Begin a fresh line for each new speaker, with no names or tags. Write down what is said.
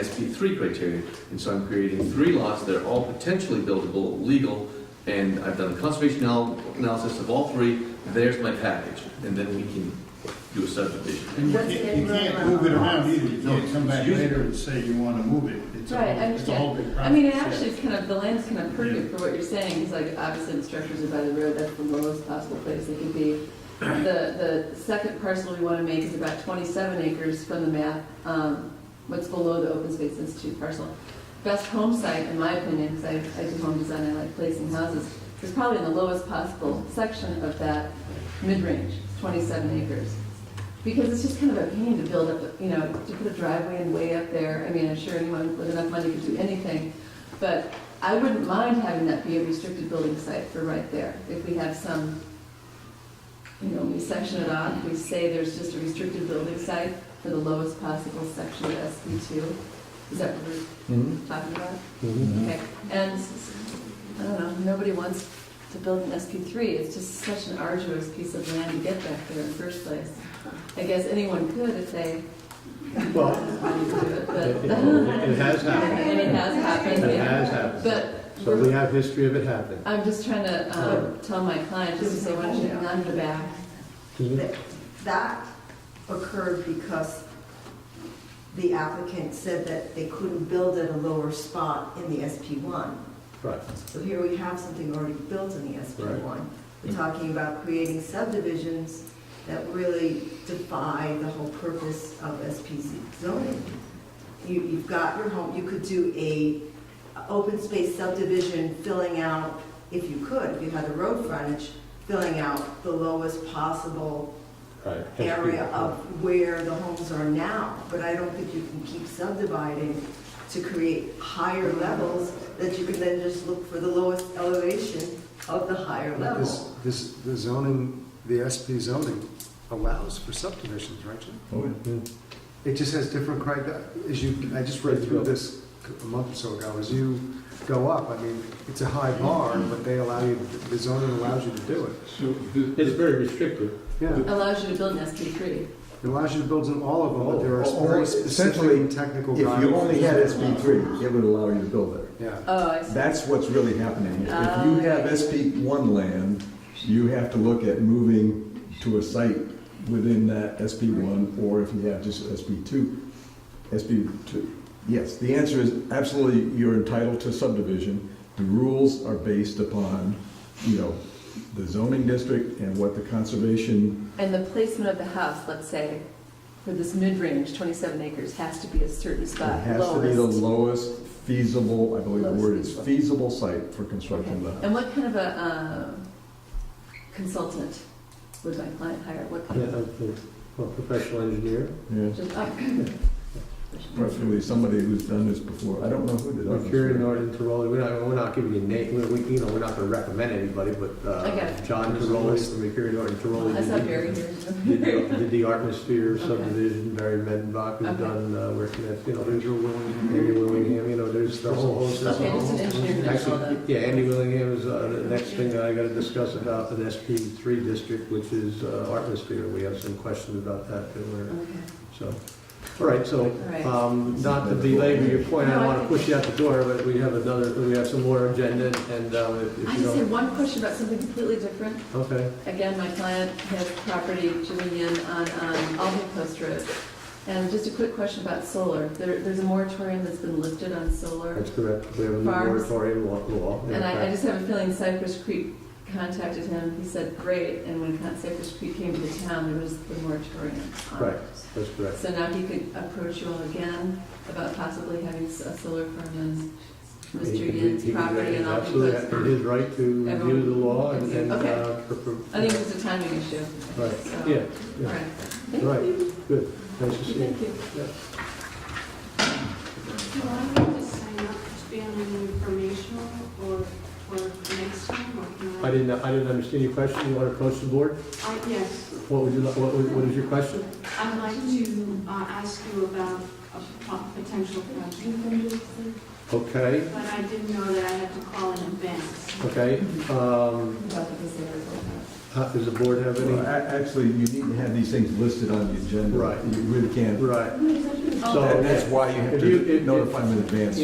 SP3 criteria, and so I'm creating three lots that are all potentially buildable, legal, and I've done a conservation anal- analysis of all three, there's my package, and then we can do a subdivision.
And you
That's
can't,
the
you can't
end
move it
run.
around either, you
No,
can't come back
it's usable.
later and say you wanna move it. It's a
Right, I
whole- it's a whole big
I mean, it
process.
actually is kind of, the land's kind of perfect for what you're saying, because like, obviously the structures are by the road, that's the lowest possible place they could be. The, the second parcel we want to make is about 27 acres from the map, um, what's below the Open Space Institute parcel. Best home site, in my opinion, because I, I do home design, I like placing houses, is probably in the lowest possible section of that mid-range, 27 acres. Because it's just kind of a pain to build up, you know, to put a driveway and way up there. I mean, I'm sure anyone with enough money could do anything. But I wouldn't mind having that be a restricted building site for right there. If we have some, you know, we section it off, we say there's just a restricted building site for the lowest possible section of SB two. Is that what we're talking about?
Mm-hmm.
Okay, and, I don't know, nobody wants to build an SP three, it's just such an arduous piece of land to get back there in the first place. I guess anyone could if they
Well,
wanted to do it,
it- it
but,
it has happened.
and it has happened,
It
yeah.
has happened.
But,
So we
we're-
have history of it happening.
I'm just trying to, um, tell my client, just to say, why don't you hang on to the back?
Excuse me?
That- That occurred because the applicant said that they couldn't build at a lower spot in the SP1.
Right.
So here we have something already built in the SP1. We're talking about creating subdivisions that really defy the whole purpose of SPZ zoning. You, you've got your home, you could do a a open space subdivision filling out, if you could, if you had the road frontage, filling out the lowest possible
Right.
area of where the homes are now, but I don't think you can keep subdividing to create higher levels that you can then just look for the lowest elevation of the higher
But This,
level.
this, the zoning, the SP zoning allows for subdivisions, right, Jim?
Oh,
Mhm.
It just has different criteria, as you, I just read through this a month or so ago, as you go up, I mean, it's a high bar, but they allow you, the zoning allows you to do it.
So the-
It's very restrictive.
Yeah, it
Allows you to build an SP three.
allows you to build in all of them, but there are
Or- or
very
Oh, essentially,
specific and technical
If
guidelines.
you only had SB three, it would allow you to build there.
Yeah,
Oh, I see.
That's what's really happening. If you have SB one land, you have to look at moving to a site within that SB one, or if you have just SB two, SB two. Yes, the answer is absolutely, you're entitled to subdivision. The rules are based upon, you know, the zoning district and what the conservation,
And the placement of the house, let's say, for this mid-range, 27 acres, has to be a certain
it
spot,
has to be the
lowest.
lowest feasible, I believe the word is
Lowest
feasible site for construction of the house.
And what kind of a um, consultant would my client hire? What kind
Yeah,
of,
I think, well, professional engineer.
Yes,
just, oh.
preferably somebody who's done this before. I don't know who did
We're
this.
curing Norton Tiroli. We're not, we're not giving you name, we, we- you know, we're not gonna recommend anybody, but,
I got
uh,
it.
John Tiroli from Mercury Norton Tiroli.
I saw
did
Barry
the-
here.
Did the- did the Artmosphere
Okay.
subdivision, Barry Medenbach, who's
Okay.
done, uh, working at, you know, there's Andy Willingham, you know, there's the whole host of.
Okay, just an engineer that's all
Actually,
that.
yeah, Andy Willingham is uh, the next thing that I got to discuss about the SP three district, which is uh, Artmosphere. We have some questions about that, that we're-
Okay,
so, all right, so,
Right.
um, not to belabor your point, I don't want to push you out the door, but we have another, we have some more agenda, and um, if if
I just
you
had
don't,
one question about something completely different.
okay,
Again, my client has property, Julian, on um, Albany Post Road. And just a quick question about solar. There- There's a moratorium that's been lifted on solar.
that's correct, we have a new
Farms.
moratorium law- law. in
And I, I
effect.
just have a feeling Cypress Creek contacted him, he said, great, and when Con- Cypress Creek came to the town, there was the moratorium on
Right.
it.
That's correct.
So now he could approach you all again about possibly having s- a solar farm on
He- he-
Mr. Yin's
he-
property and all that.
Absolutely, it is right to review the law and, and,
Okay.
uh, pr- pr-
I think it's a timing issue.
Right,
So, All
yeah, yeah,
right, thank
Right.
you.
good, nice to see you.
Thank you.
Do I need to sign up to be on an informational or for next time, or can I?
I didn't, I didn't understand your question, you want to approach the board?
I- Yes,
What would you, li- what, would- what is your question?
I'd like to uh, ask you about of po- potential project.
Okay,
But I didn't know that I had to call in advance.
okay. Um,
About the facility.
how- Does the board have any?
Well, a- Actually, you need to have these things listed on the agenda.
Right.
You really can't.
Right.
That- That's why you have
If you-
to
if-
notify them in advance.